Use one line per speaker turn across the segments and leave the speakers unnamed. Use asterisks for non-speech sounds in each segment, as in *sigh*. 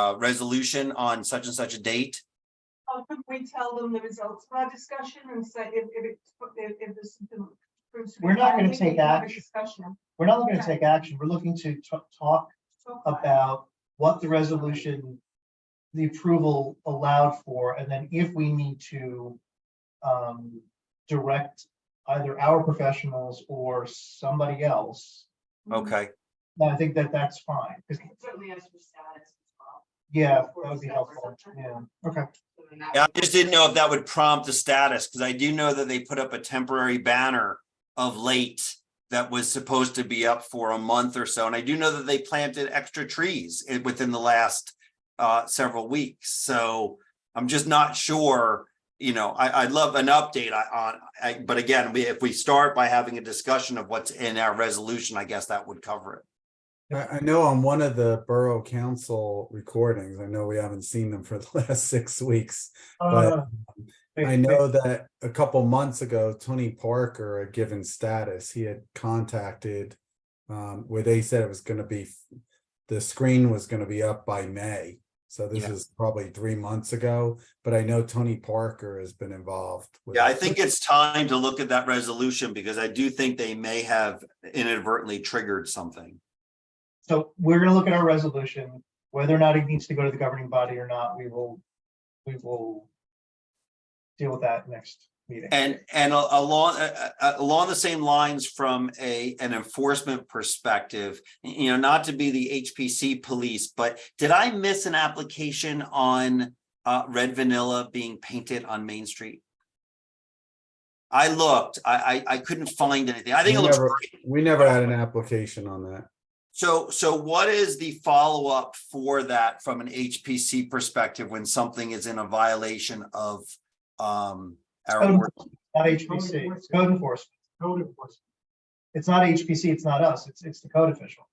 uh, resolution on such and such a date.
How could we tell them the results of our discussion and say if, if it's, if, if this. proves to be
We're not gonna
valid, we
take
can have a
action.
Discussion.
We're not looking to take action. We're looking to t- talk
So far.
about what the resolution, the approval allowed for, and then if we need to um, direct either our professionals or somebody else,
Mm-hmm.
Okay,
then I think that that's fine. 'Cause,
Certainly as for status as well.
yeah, that would be helpful. Yeah, okay.
So then that
Yeah,
would-
I just didn't know if that would prompt the status, because I do know that they put up a temporary banner of late that was supposed to be up for a month or so, and I do know that they planted extra trees i- within the last uh, several weeks, so I'm just not sure, you know, I, I'd love an update I- on, I, but again, we, if we start by having a discussion of what's in our resolution, I guess that would cover it.
I, I know on one of the borough council recordings, I know we haven't seen them for *laughs* the last six weeks.
Uh,
I know that a couple months ago, Tony Parker, a given status, he had contacted um, where they said it was gonna be, the screen was gonna be up by May. So this
Yeah.
is probably three months ago, but I know Tony Parker has been involved. with
Yeah, I
it.
think it's time to look at that resolution, because I do think they may have inadvertently triggered something.
So we're gonna look at our resolution, whether or not it needs to go to the governing body or not, we will, we will deal with that next meeting.
And, and a- along, a- a- along the same lines from a, an enforcement perspective, you know, not to be the HPC police, but did I miss an application on uh, red vanilla being painted on Main Street? I looked, I, I, I couldn't find anything. I think it
We
looks
never-
great.
We never had an application on that.
So, so what is the follow-up for that from an HPC perspective when something is in a violation of um our
Code
work?
enforcement, Not HPC, it's code enforcement. Code enforcement. It's not HPC, it's not us, it's, it's the code official.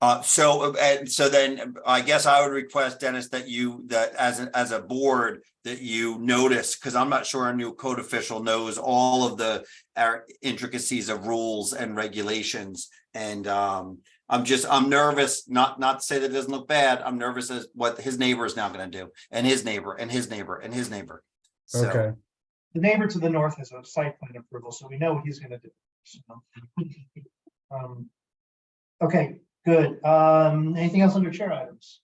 Uh, so, uh, and so then I guess I would request Dennis that you, that as, a- as a board, that you notice, because I'm not sure our new code official knows all of the our intricacies of rules and regulations. And um, I'm just, I'm nervous, not, not to say that it doesn't look bad. I'm nervous as what his neighbor is now gonna do and his neighbor and his neighbor and his neighbor. So,
Okay,
The neighbor to the north has a site plan approval, so we know what he's gonna do. so. Um, Okay, good. Um, anything else under chair items?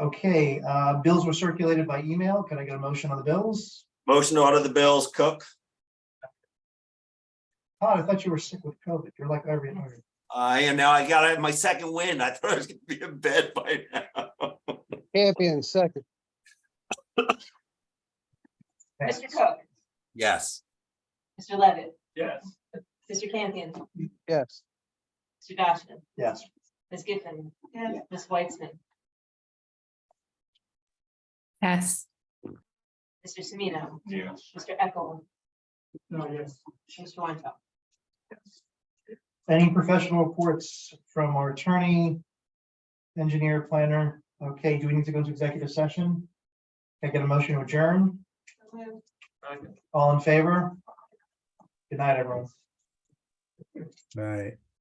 Okay, uh, bills were circulated by email. Can I get a motion on the bills?
motion to order the bills, Cook.
Todd, I thought you were sick with COVID. You're like every, every-
I am now, I got my second win. I thought I was gonna be in bed by now.
Champion second.
Mr. Cook,
Yes.
Mr. Levitt,
Yes.
Mr. Campion,
Yes.
Mr. Dashna,
Yes.
Ms. Giffen. Yes. Ms. Weitzman,
Yes.
Mr. Semino,
Yes.
Mr. Eckel,
No, yes.
Mr. Weintraub.
Any professional reports from our attorney, engineer, planner? Okay, do we need to go into executive session? Can I get a motion to adjourn? All in favor? Good night, everyone.
right.